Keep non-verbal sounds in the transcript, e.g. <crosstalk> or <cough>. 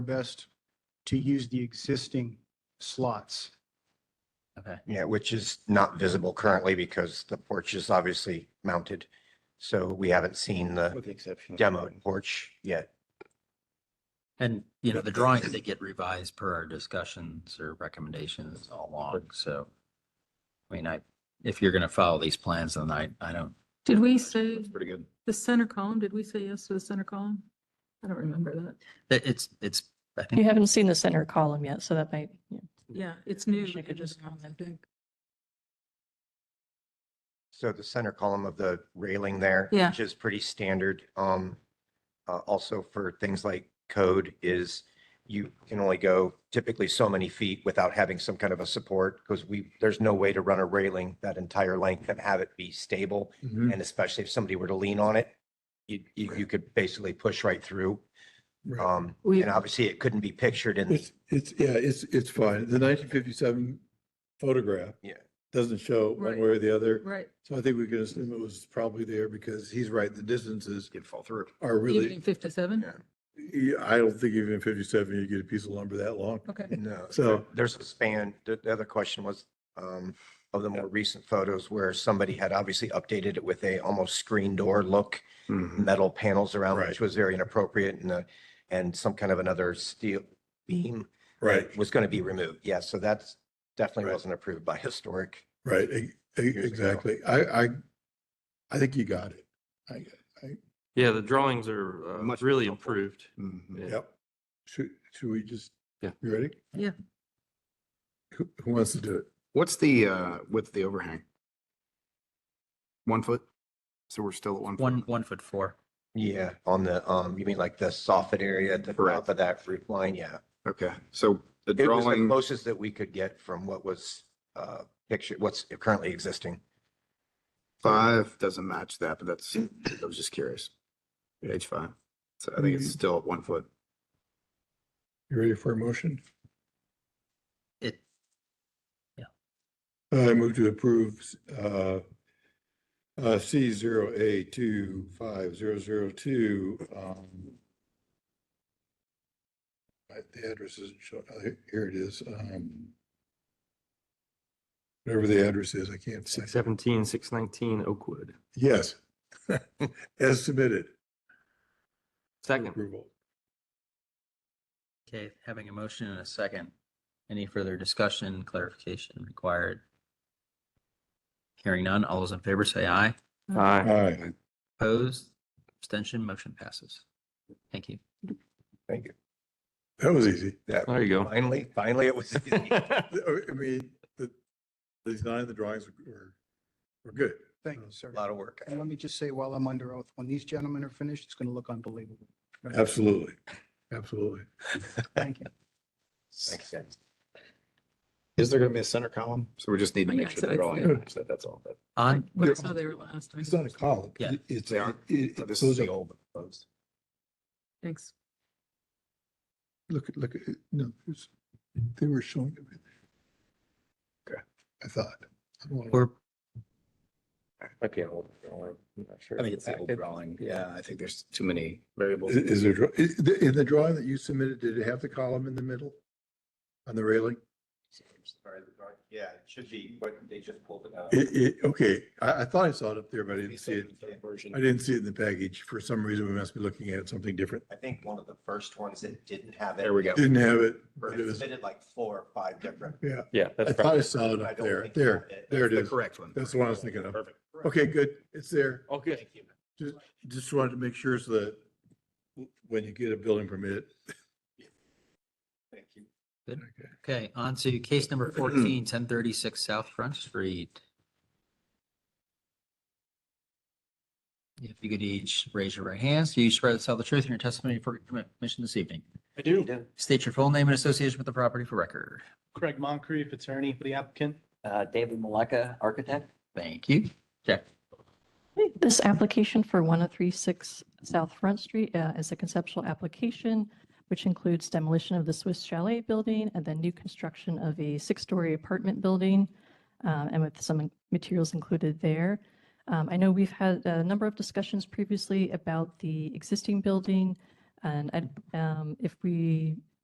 best to use the existing slots. Okay. Yeah, which is not visible currently because the porch is obviously mounted. So we haven't seen the With the exception. of one. demoed porch yet. And, you know, the drawings, they get revised per our discussions or recommendations all along, so. I mean, I, if you're gonna follow these plans, then I, I don't, Did we say Pretty good. the center column? Did we say yes to the center column? I don't remember that. that it's, it's, I You think, haven't seen the center column yet, so that might, yeah. Yeah, it's new. Wish I could just comment. So the center column of the railing there. Yeah. Which is pretty standard. Um, uh, also for things like code is you can only go typically so many feet without having some kind of a support because we, there's no way to run a railing that entire length and have it be stable. Mm-hmm. Mhm. And especially if somebody were to lean on it, you, you, you could basically push right through. Um, We- and obviously it couldn't be pictured in, It's, it's, yeah, it's, it's fine. The nineteen fifty-seven photograph. Yeah. Doesn't show one Right. way or the other. Right, So I think we can assume it was probably there because he's right. The distances Did fall through. are even in really, fifty-seven? Yeah. Yeah, I don't think even in fifty-seven, you get a piece of lumber that long. Okay. no. <laughs> So- There's a span. The, the other question was, um, of the more recent photos where somebody had obviously updated it with a almost screen door look, Mm-hmm. metal panels around, Right. which was very inappropriate and, uh, and some kind of another steel beam. that Right, Was going to be removed. Yeah. So that's definitely Right. wasn't approved by historic. right, e- e- ago. exactly. I, I, I think you got it. I, Yeah, the drawings are uh, Much really more helpful. Mm-hmm. improved. Yeah. yep. Should, should we just? Yeah. You ready? Yeah. Who, who wants to do it? What's the, uh, width of the overhang? One foot? So we're still at one. foot? one, one foot four. Yeah. On the, um, you mean like the soffit area at the Correct. top of that roof line? Yeah. Okay, so the It was the drawing, closest that we could get from what was, uh, picture, what's currently existing. five doesn't match that, but that's, I was just curious. H five. So I think it's still at one foot. You ready for a motion? It, I move to approve uh, uh, C zero A two five zero zero two. um, I- The address isn't showing, oh, here- here it is. um, Whatever the address is, I can't say. Six seventeen, six nineteen Oakwood. Yes. <laughs> As submitted. Second, Approval. okay, having a motion and a second. Any further discussion, clarification required? Hearing none, all those in favor say aye. <laughs> aye. Aye. Opposed, abstention, motion passes. Thank you. Thank you. That was easy. oh, Yeah. There you go. Finally, finally, it was. <laughs> I I mean, the, the design of the drawings were, were good. Thank you, sir. A lot of work. And let me just say while I'm under oath, when these gentlemen are finished, it's going to look unbelievable. Absolutely. Absolutely. Thank you. Makes sense. Is there gonna be a center column? So we just need to Oh, yeah, make sure so the it's drawing, there. matches that, that's all. But On, When I saw they were last It's time. not a column. Yeah. It's, They it, aren't. So it- This is those are the old proposed. Thanks. Look, at look, at it. no, there's, they were showing it. right there. Okay. I thought. I don't wanna- we're, Might be an old drawing. I'm not sure. I think it's the old drawing. Yeah, I think there's too many variables. Is is there, dra- is the- in the drawing that you submitted, did it have the column in the middle? On the railing? Yeah, it should be, but they just pulled it out. It, it, okay, I, I thought I saw it up there, but I didn't see it. Version. I didn't see it in the package. For some reason, we must be looking at something different. I think one of the first ones that didn't have it. There we go. Didn't have it. but it They was- submitted like four or five different. Yeah, Yeah, I that's thought I probably saw it I up don't there. think they There, had it. there it The is. correct one. That's the one I was thinking of. Perfect. Okay, good. It's there. all Oh, good. Just, just wanted to make sure so that when you get a building permit, Thank you. okay, on to case number 14, 1036 South Front Street. If you could each raise your right hands, do you swear to tell the truth in your testimony for commission this evening? I do. State your full name and association with the property for record. Craig Moncrief, attorney for the applicant. Uh, David Maleka, architect. Thank you. Check. This application for 1036 South Front Street uh, is a conceptual application, which includes demolition of the Swiss Chalet building and then new construction of a six-story apartment building, uh, and with some materials included there. Um, I know we've had a number of discussions previously about the existing building, and I- um, if we